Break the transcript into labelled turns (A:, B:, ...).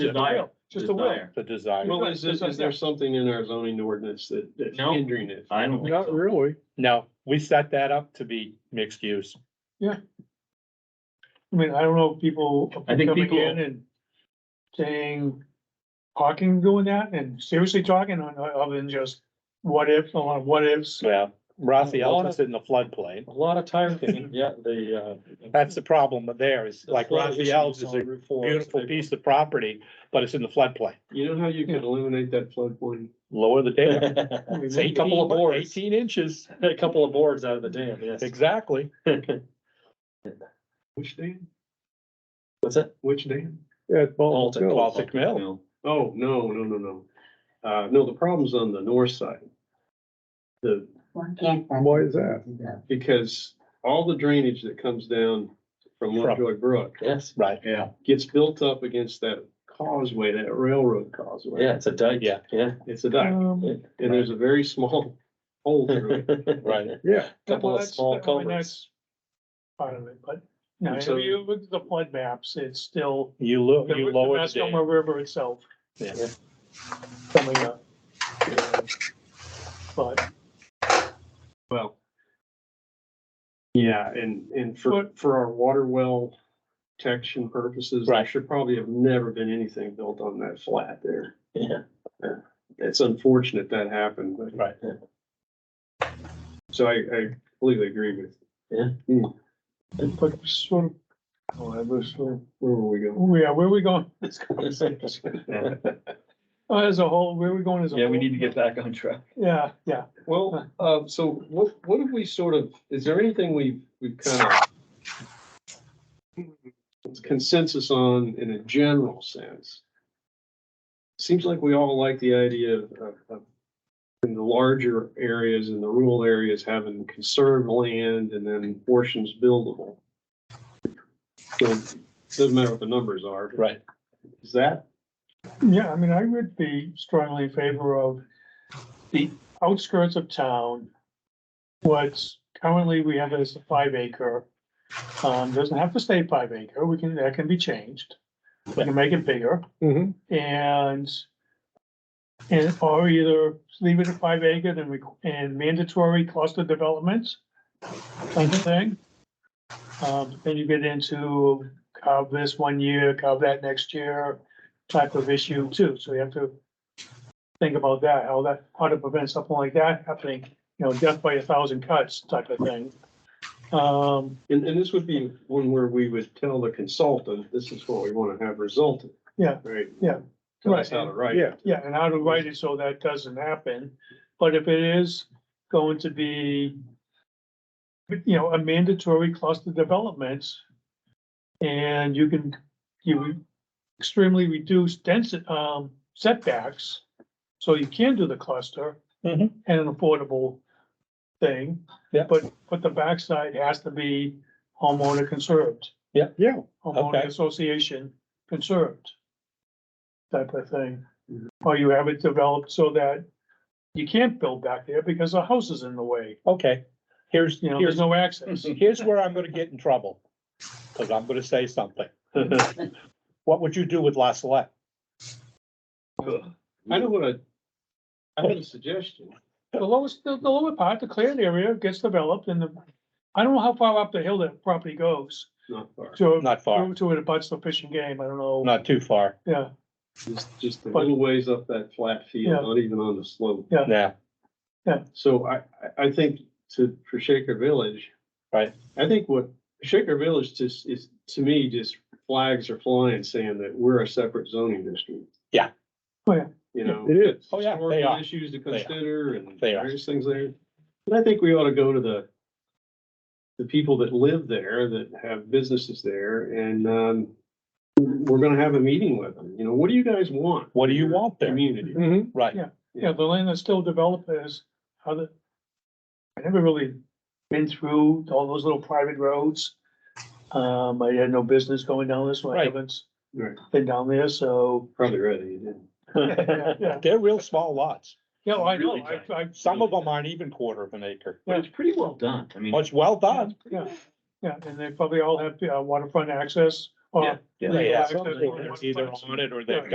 A: Desire.
B: Just a will.
A: Desire.
C: the desire.
B: Well,
D: Well, is, this- is there something in our zoning ordinance that, that's
A: No.
D: hindering it?
A: I don't think
E: Not
A: so.
E: really.
C: No, we set that up to be mixed use.
E: I mean, I don't know if people
A: I think
E: coming
A: people-
E: in and saying, talking, doing that and seriously talking on, uh, other than just what if, on what ifs.
C: Yeah, Rossi
B: Well,
C: Elvis in the floodplain.
B: A lot of tire kicking, yeah, the, uh.
C: That's the problem there is like Rossi Elvis is a beautiful piece of property, but it's in the floodplain.
D: You know how you can eliminate that floodplain?
C: Lower the dam.
B: A
C: It's
B: A couple of
C: 18
B: boards.
C: Eighteen inches,
B: couple of boards out of the dam, yes.
C: exactly.
D: Which dam?
B: What's that?
D: Which dam?
E: At
B: Baltic.
E: Mill.
C: Baltic Mill.
B: No.
D: Oh, no, no, no, no. Uh, no, the problem's on the north side. The,
E: Why is that?
D: because all the drainage that comes down from
C: From-
D: Lovejoy Brook
B: Yes,
C: Right,
A: Yeah.
D: gets built up against that causeway, that railroad causeway.
B: yeah, it's a dike, yeah,
C: Yeah.
B: yeah.
D: It's a dike,
E: Um,
D: and there's a very small hole through it.
C: right.
E: Yeah.
B: Couple of small culverts.
E: Part of it, but, no,
D: So-
E: if you look at the flood maps, it's still
C: You lo-
E: the
C: you
E: the
C: lower the dam.
E: Mascoma River itself
C: Yeah.
E: coming up. But.
D: Well. Yeah, and, and for, for our water well protection purposes, there
C: Right.
D: should probably have never been anything built on that flat there.
B: Yeah,
D: It's unfortunate that happened, but.
C: Right.
D: So I, I completely agree with,
E: But sort of, oh, I was sort of,
D: where were we going?
E: oh, yeah, where are we going? with This conversation? Uh, As a whole, where are we going as a whole?
A: Yeah, we need to get back on track.
E: Yeah, yeah.
D: Well, uh, so what, what have we sort of, is there anything we've, we've kind of consensus on in a general sense? Seems like we all like the idea of, of, of in the larger areas and the rural areas having conserved land and then portions buildable. So, doesn't matter what the numbers are.
C: Right.
D: Is that,
E: Yeah, I mean, I would be strongly in favor of the outskirts of town. What's currently, we have as a five acre. Um, doesn't have to stay five acre, we can, that can be changed. We can make it bigger
D: Mm-hmm.
C: Mhm.
E: and. And or either leave it at five acre and we, and mandatory cluster developments. Kind of thing. Um, then you get into carve this one year, carve that next year type of issue too, so you have to think about that, how that, how to prevent something like that happening, you know, death by a thousand cuts type of thing. Um,
D: and, and this would be one where we would tell the consultant, this is what we want to have resulted.
E: Yeah.
D: Right?
E: Yeah.
D: Tell us how to write. it.
E: yeah, and how to write it so that doesn't happen, but if it is going to be you know, a mandatory cluster developments, and you can, you extremely reduce density, um, setbacks, so you can do the cluster and
C: Mhm.
E: an affordable thing.
C: Yeah.
E: But, but the backside has to be homeowner conserved.
C: Yeah.
E: Yeah.
C: Okay.
E: Homeowner association conserved. Type of thing.
C: Mm-hmm.
E: Or you have it developed so that you can't build back there because the house is in the way,
C: Okay, here's,
E: you know,
C: here's
E: there's no access.
C: Here's where I'm gonna get in trouble, because I'm gonna say something. What would you do with La Salette?
D: I know what I, I have a suggestion.
E: The lowest, the the lower part, the cleared area gets developed and the, I don't know how far up the hill that property goes.
D: Not far,
E: To,
C: Not far,
E: to it abuts the fishing game, I don't know,
C: not too far,
E: yeah,
D: just, just a
E: But-
D: little ways up that flat
E: Yeah.
D: field, not even on the slope.
C: yeah,
D: So I, I, I think to, for Shaker Village.
C: Right.
D: I think what Shaker Village just is, to me, just flags are flying saying that we're a separate zoning district.
C: Yeah.
E: Oh, yeah.
D: You know.
C: It is. Oh, yeah, they
D: historical
C: are.
D: Issues to
C: are.
D: consider and
C: They are.
D: various things there. And I think we ought to go to the, the people that live there, that have businesses there and, um, we're gonna have a meeting with them. You know, what do you guys want?
C: What do you want there?
D: Community.
C: right,
E: yeah, the land that's still developed is, how the. I never really been through all those little private roads. Um, I had no business going down this way, I
C: Right.
E: haven't
D: Right,
E: been down there, so,
D: probably ready, you didn't.
E: yeah, yeah,
C: they're real small lots,
E: yeah, I know,
A: Really
E: I, I,
C: some of them aren't even quarter of an acre,
A: But it's pretty well done. I mean,
C: Well, it's well done,
E: yeah, yeah, and they probably all have uh, waterfront access or
A: yeah.
C: yeah,
E: Yeah.
C: either on it or they've